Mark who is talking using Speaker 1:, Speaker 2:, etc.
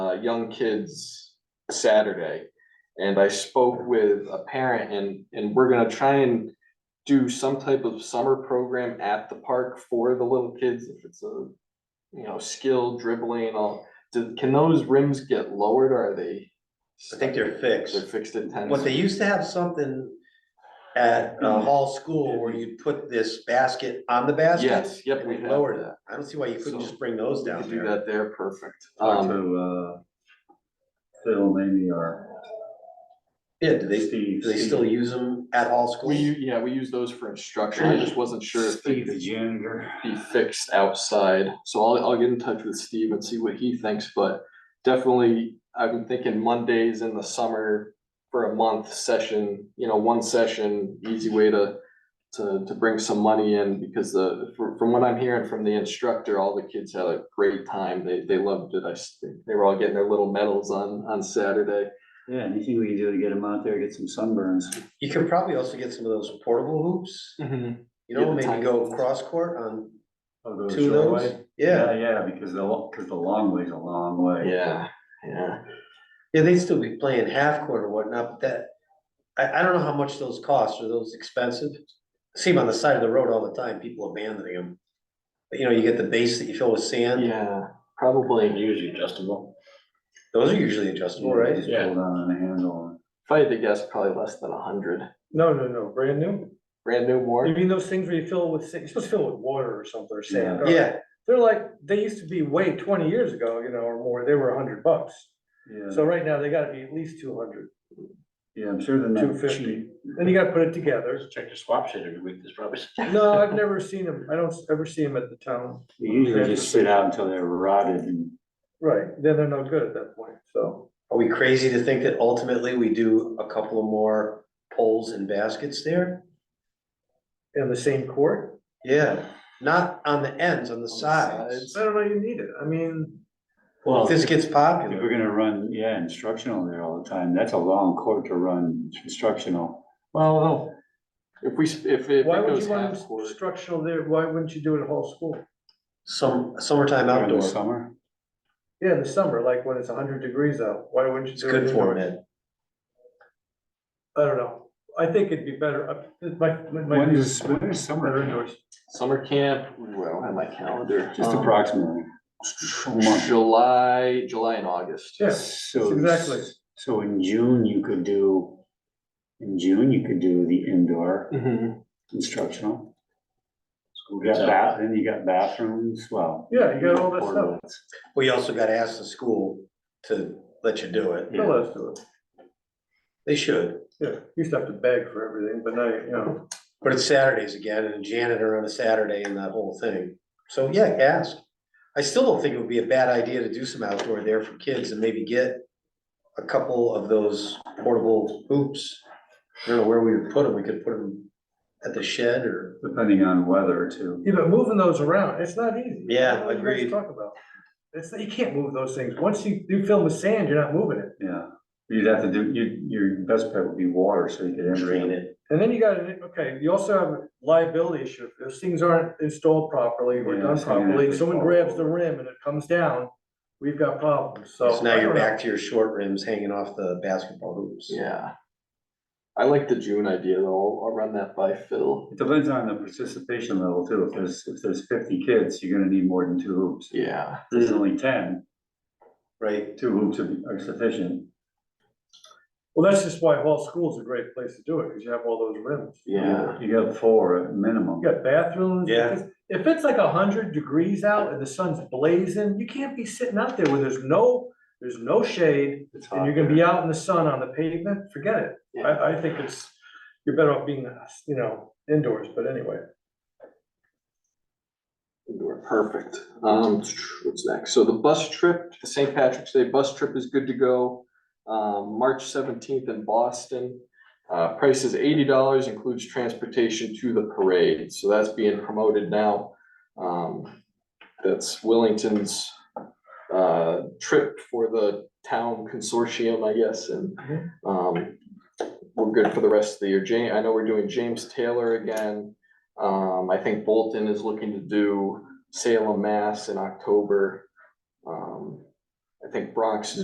Speaker 1: uh, young kids Saturday. And I spoke with a parent and, and we're gonna try and do some type of summer program at the park for the little kids, if it's a, you know, skill dribbling and all. Do, can those rims get lowered or are they?
Speaker 2: I think they're fixed.
Speaker 1: They're fixed Mm-hmm. at ten.
Speaker 2: What they used to have something at uh, Hall School where you put this basket on the basket.
Speaker 1: Yes, yep,
Speaker 2: And
Speaker 1: we
Speaker 2: we
Speaker 1: have
Speaker 2: lowered it.
Speaker 1: that.
Speaker 2: I don't see why you
Speaker 1: So,
Speaker 2: couldn't just bring those
Speaker 1: We
Speaker 2: down
Speaker 1: could do
Speaker 2: there.
Speaker 1: that there, perfect.
Speaker 3: Talk
Speaker 1: Um,
Speaker 3: to, uh, Phil, maybe, or
Speaker 2: Yeah, do they, do
Speaker 3: Steve.
Speaker 2: they still use them at Hall School?
Speaker 1: we, u- yeah, we use those for instruction. I just wasn't sure if they
Speaker 3: Steve, the
Speaker 1: could
Speaker 3: janitor.
Speaker 1: be fixed outside. So I'll, I'll get in touch with Steve and see what he thinks, but definitely, I've been thinking Mondays in the summer for a month session, you know, one session, easy way to, to, to bring some money in because the, from, from what I'm hearing from the instructor, all the kids had a great time. They, they loved it. I, s- they were all getting their little medals on, on Saturday.
Speaker 3: Yeah, anything we can do to get him out there, get some sunburns.
Speaker 2: You could probably also get some of those portable hoops, you
Speaker 1: Yeah,
Speaker 2: know,
Speaker 1: the
Speaker 2: maybe
Speaker 1: tiny
Speaker 2: go
Speaker 1: ones.
Speaker 2: cross court on
Speaker 3: Oh, the
Speaker 2: two of those.
Speaker 3: shortway?
Speaker 2: Yeah,
Speaker 3: Yeah, because the, lo- cause the long way's a long way.
Speaker 1: Yeah, yeah.
Speaker 2: yeah, they'd still be playing half court or whatnot, but that, I, I don't know how much those cost. Are those expensive? See them on the side of the road all the time, people abandoning them. But you know, you get the base that you fill with sand.
Speaker 1: Yeah, probably.
Speaker 3: Usually adjustable.
Speaker 2: Those are usually adjustable,
Speaker 3: Right,
Speaker 2: right?
Speaker 3: just pull down on the handle.
Speaker 1: If I had to guess, probably less than a hundred.
Speaker 4: No, no, no, brand new.
Speaker 1: Brand new
Speaker 4: You
Speaker 1: more?
Speaker 4: mean those things where you fill with, sa- you're supposed to fill with water or something or sand. or-
Speaker 2: Yeah,
Speaker 4: They're like, they used to be way twenty years ago, you know, or more, they were a hundred bucks.
Speaker 3: Yeah,
Speaker 4: So right now, they gotta be at least two hundred.
Speaker 3: yeah, I'm sure they're not
Speaker 4: 250.
Speaker 3: cheap.
Speaker 4: Then you gotta put it together.
Speaker 5: Check your swap shit every week, there's probably.
Speaker 4: No, I've never seen them. I don't ever see them at the town.
Speaker 3: They usually just sit out until they're rotted and.
Speaker 4: Right, then they're no good at that point, so.
Speaker 2: are we crazy to think that ultimately we do a couple of more poles and baskets there?
Speaker 4: In the same court?
Speaker 2: Yeah, not on the ends, on the sides.
Speaker 1: sides.
Speaker 4: I don't know, you need it. I mean,
Speaker 3: Well,
Speaker 2: If this gets
Speaker 3: If we're
Speaker 2: popular,
Speaker 3: gonna run, yeah, instructional there all the time, that's a long court to run instructional. Well, no,
Speaker 1: If we, s- if it if it
Speaker 4: why would
Speaker 1: goes
Speaker 4: you want
Speaker 1: half
Speaker 4: them
Speaker 1: court,
Speaker 4: structural there? Why wouldn't you do it at whole school?
Speaker 2: some, summertime
Speaker 3: during
Speaker 2: outdoor,
Speaker 3: the summer.
Speaker 4: Yeah, in the summer, like when it's hundred degrees out, why wouldn't you
Speaker 2: it's
Speaker 4: do it?
Speaker 2: good for
Speaker 4: indoors?
Speaker 2: it.
Speaker 4: I don't know. I think it'd be better, up- it might, it might
Speaker 3: When
Speaker 4: be
Speaker 3: is, when is
Speaker 4: better
Speaker 3: summer?
Speaker 4: indoors.
Speaker 1: summer camp, ooh, I don't have my calendar.
Speaker 3: Just
Speaker 1: Um,
Speaker 3: approximately. A month.
Speaker 1: July, July and August.
Speaker 4: Yeah,
Speaker 3: So.
Speaker 4: exactly.
Speaker 3: So in June, you could do, in June, you could do the indoor
Speaker 1: Mhm.
Speaker 3: instructional.
Speaker 5: School
Speaker 3: You
Speaker 5: gets
Speaker 3: got
Speaker 5: out.
Speaker 3: bath, then you got bathrooms, well.
Speaker 4: Yeah, you got all that stuff.
Speaker 3: portables.
Speaker 2: Well, you also gotta ask the school to let you do it.
Speaker 3: Yeah.
Speaker 4: They'll let us do it.
Speaker 2: They should,
Speaker 4: Yeah, you used to have to beg for everything, but now, you you know,
Speaker 2: but it's Saturdays again and janitor on a Saturday and that whole thing. So yeah, ask. I still don't think it would be a bad idea to do some outdoor there for kids and maybe get a couple of those portable hoops. I don't know where we would put them. We could put them at the shed or,
Speaker 3: Depending on weather too.
Speaker 4: yeah, but moving those around, it's not easy.
Speaker 2: Yeah,
Speaker 4: I don't know what you guys
Speaker 2: agreed.
Speaker 4: Talk about. It's, you can't move those things. Once you, you fill with sand, you're not moving it.
Speaker 3: Yeah, you'd have to do, you, your best bet would be water, so you could enter
Speaker 2: drain
Speaker 3: it.
Speaker 2: it.
Speaker 4: And then you got, an- okay, you also have a liability issue. If those things aren't installed properly or
Speaker 3: Yeah,
Speaker 4: done
Speaker 3: so you have
Speaker 4: properly,
Speaker 3: to
Speaker 4: someone
Speaker 3: fall
Speaker 4: grabs the
Speaker 3: over.
Speaker 4: rim and it comes down, we've got problems, so.
Speaker 2: So now
Speaker 4: I
Speaker 2: you're
Speaker 4: don't know.
Speaker 2: back to your short rims hanging off the basketball hoops.
Speaker 1: Yeah. I like the June idea though. I'll- I'll run that by Phil.
Speaker 3: It depends on the participation level too. If there's, if there's fifty kids, you're gonna need more than two hoops. If
Speaker 1: Yeah,
Speaker 3: there's only ten,
Speaker 2: Right?
Speaker 3: two hoops would be- are sufficient.
Speaker 4: Well, that's just why Hall School's a great place to do it, because you have all those rims.
Speaker 1: yeah.
Speaker 3: You got four at minimum.
Speaker 4: You got bathrooms.
Speaker 2: Yeah.
Speaker 4: because If it's like a hundred degrees out and the sun's blazing, you can't be sitting out there where there's no, there's no shade.
Speaker 3: It's
Speaker 4: And
Speaker 3: hot
Speaker 4: you're gonna
Speaker 3: there.
Speaker 4: be out in the sun on the pavement, forget it.
Speaker 1: Yeah.
Speaker 4: I, I think it's, you're better off being, you know, indoors, but anyway.
Speaker 1: Indoor, perfect. Um, what's next? So the bus trip, the St. Patrick's Day bus trip is good to go. Um, March seventeenth in Boston. Uh, price is eighty dollars, includes transportation to the parade, so that's being promoted now. Um, that's Willington's uh, trip for the town consortium, I guess, and
Speaker 4: Mhm.
Speaker 1: um, we're good for the rest of the year. Ja- I know we're doing James Taylor again. Um, I think Bolton is looking to do Salem, Mass in October. Um, I think Bronx is